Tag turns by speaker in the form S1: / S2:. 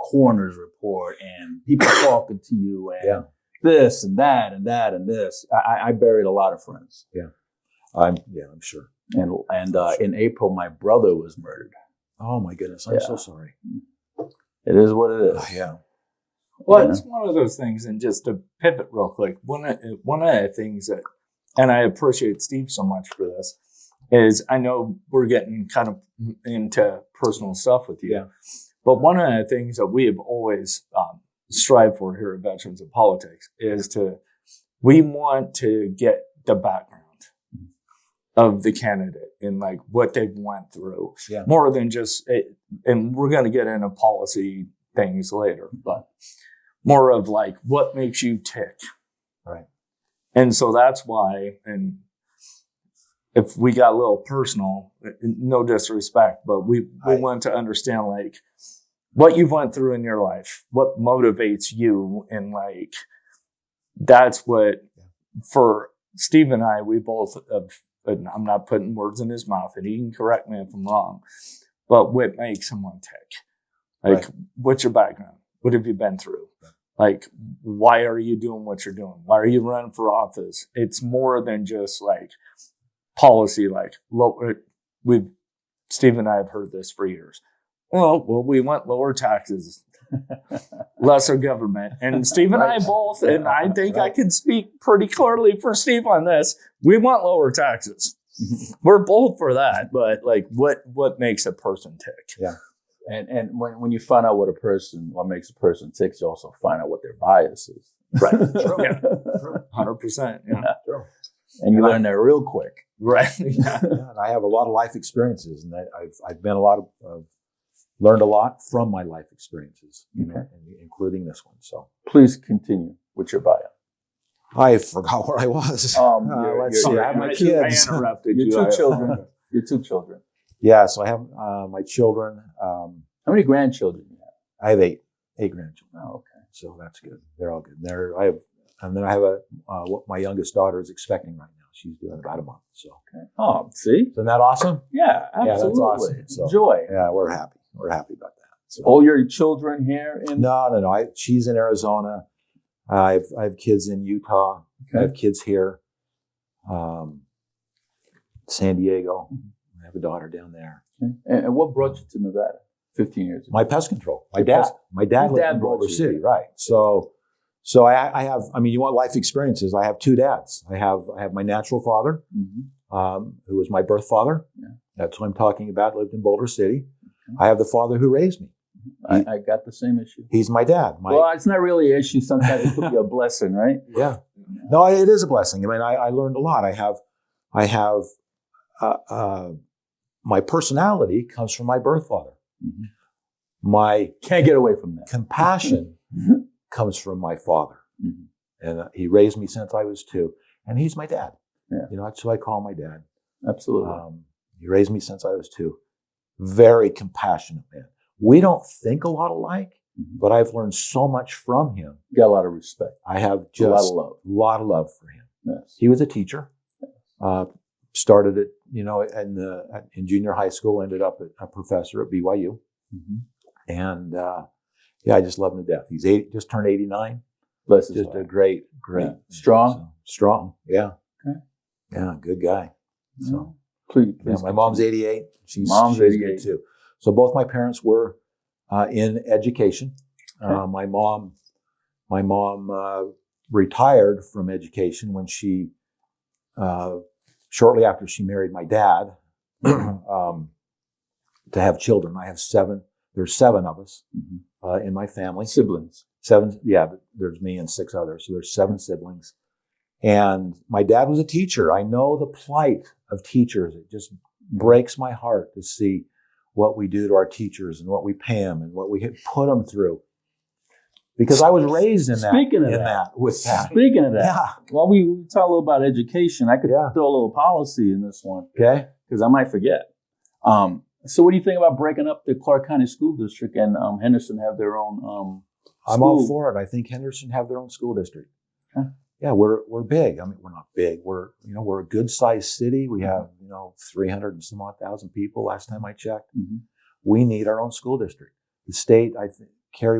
S1: coroner's report and people talking to you and
S2: Yeah.
S1: this and that and that and this. I, I- I buried a lot of friends.
S2: I'm yeah, I'm sure.
S1: And and uh, in April, my brother was murdered.
S2: Oh my goodness, I'm
S1: Yeah.
S2: so sorry.
S1: It is what it is.
S2: Oh, Yeah.
S3: Well,
S1: Yeah.
S3: it's one of those things, and just to pivot real quick, one of, one of the things that, and I appreciate Steve so much for this, is I know we're getting kind of into personal stuff with you,
S2: Yeah.
S3: but one of the things that we have always um, strived for here at Veterans of Politics is to, we want to get the background of the candidate and like what they've went through,
S2: Yeah.
S3: more than just, it, and we're going to get into policy things later, but more of like what makes you tick.
S2: Right.
S3: And so that's why, and if we got a little personal, no disrespect, but we, we
S2: I-
S3: want to understand like what you've went through in your life, what motivates you, and like that's what for Steve and I, we both have, and I'm not putting words in his mouth, and he can correct me if I'm wrong, but what makes someone tick? Like, what's your background? What have you been through? Like, why are you doing what you're doing? Why are you running for office? It's more than just like policy. Like, low, uh, we've Steve and I have heard this for years. Well, well, we want lower taxes, lesser government, and Steve and I both, and I think I can speak pretty clearly for Steve on this. We want lower taxes. We're bold for that, but like, what what makes a person tick?
S1: And and when, when you find out what a person what makes a person tick, you also find out what their bias is.
S3: Right.
S1: and
S3: Yeah. Hundred percent. Yeah.
S2: Sure.
S1: you learn that real quick.
S3: Right. Yeah.
S2: yeah, and I have a lot of life experiences, and that I've I've been a lot of uh, learned a lot from my life experiences, you know,
S1: Okay.
S2: in- including this one. So
S1: Please continue with your bio.
S2: I forgot where I was.
S1: Um,
S2: Uh,
S1: your-
S2: let's
S1: your-
S2: see.
S3: Sorry,
S2: I have my
S3: I-
S2: kids.
S3: I interrupted
S1: Your
S3: you.
S1: two
S3: I-
S1: children. Your two children.
S2: Yeah, so I have uh, my children. Um,
S1: How many grandchildren do you have?
S2: I have eight eight grandchildren,
S1: Oh, okay.
S2: so that's good. They're all good. They're I have, and then I have a uh, what my youngest daughter is expecting right now. She's doing about a month. So
S1: okay. Oh, see?
S2: isn't that awesome?
S1: Yeah, absolutely.
S2: Yeah, that's awesome. So-
S1: Joy.
S2: Yeah, we're happy. We're happy about that. So.
S1: All your children here in
S2: No, no, no. I, she's in Arizona. I've I have kids in Utah. I have kids here. Um, San Diego. I have a daughter down there.
S1: Okay. And, and what brought you to Nevada 15 years ago?
S2: My pest control. My
S1: Your
S2: dad.
S1: pest-
S2: my dad
S1: Your
S2: lived
S1: dad
S2: in
S1: brought
S2: Boulder
S1: you
S2: City,
S1: here.
S2: right? So, so I, I have. I mean, you want life experiences? I have two dads. I have I have my natural father,
S1: Mhm.
S2: um, who was my birth father.
S1: Yeah.
S2: That's who I'm talking about. Lived in Boulder City. I have the father who raised me.
S1: I, I got the same issue.
S2: He's my dad. My
S1: well, it's not really an issue. Sometimes it could be a blessing, right?
S2: Yeah. No, it is a blessing. I mean, I, I learned a lot. I have, I have, uh, uh, my personality comes from my birth father.
S1: Mhm.
S2: My
S1: Can't get away from that.
S2: compassion
S1: Mhm.
S2: comes from my father,
S1: Mhm.
S2: and uh, he raised me since I was two, and he's my dad.
S1: Yeah.
S2: You know, that's who I call my dad.
S1: Absolutely.
S2: Um, he raised me since I was two. Very compassionate man. We don't think a lot alike,
S1: Mhm.
S2: but I've learned so much from him.
S1: got a lot of respect,
S2: I have
S1: a lot
S2: just
S1: of love.
S2: lot of love for him.
S1: Yes.
S2: he was a teacher. Uh, started at you know in the at- in junior high school, ended up a- a professor at BYU,
S1: Mhm.
S2: and uh, yeah, I just love him to death. He's eight, just turned eighty nine.
S1: Bless his
S2: Just a
S1: heart.
S2: great, great,
S1: Yeah. Strong?
S2: so, strong. Yeah,
S1: Okay.
S2: yeah, good guy. So
S1: Please,
S2: yeah,
S1: please
S2: my mom's eighty eight. She's
S1: Mom's
S2: she's good
S1: 88.
S2: too. So both my parents were uh, in education. Uh, my mom, my mom uh, retired from education when she, uh, shortly after she married my dad, um, to have children. I have seven. There's seven of us
S1: Mhm.
S2: uh, in my family.
S1: siblings.
S2: Seven. Yeah, there's me and six others. So there's seven siblings. And my dad was a teacher. I know the plight of teachers. It just breaks my heart to see what we do to our teachers and what we pay them and what we put them through. Because I was raised in that,
S1: Speaking of
S2: in
S1: that.
S2: with that.
S1: Speaking of that,
S2: Yeah.
S1: while we we talk a little about education, I could
S2: Yeah.
S1: throw a little policy in this one
S2: Okay.
S1: because I might forget. Um, so, what do you think about breaking up the Clark County School District and um, Henderson have their own? Um,
S2: I'm all
S1: School.
S2: for it. I think Henderson have their own school district.
S1: Okay.
S2: Yeah, we're we're big. I mean, we're not big. We're you know we're a good sized city. We have you know 300 and some odd thousand people. Last time I checked,
S1: Mhm.
S2: we need our own school district. The state, I think, Kerry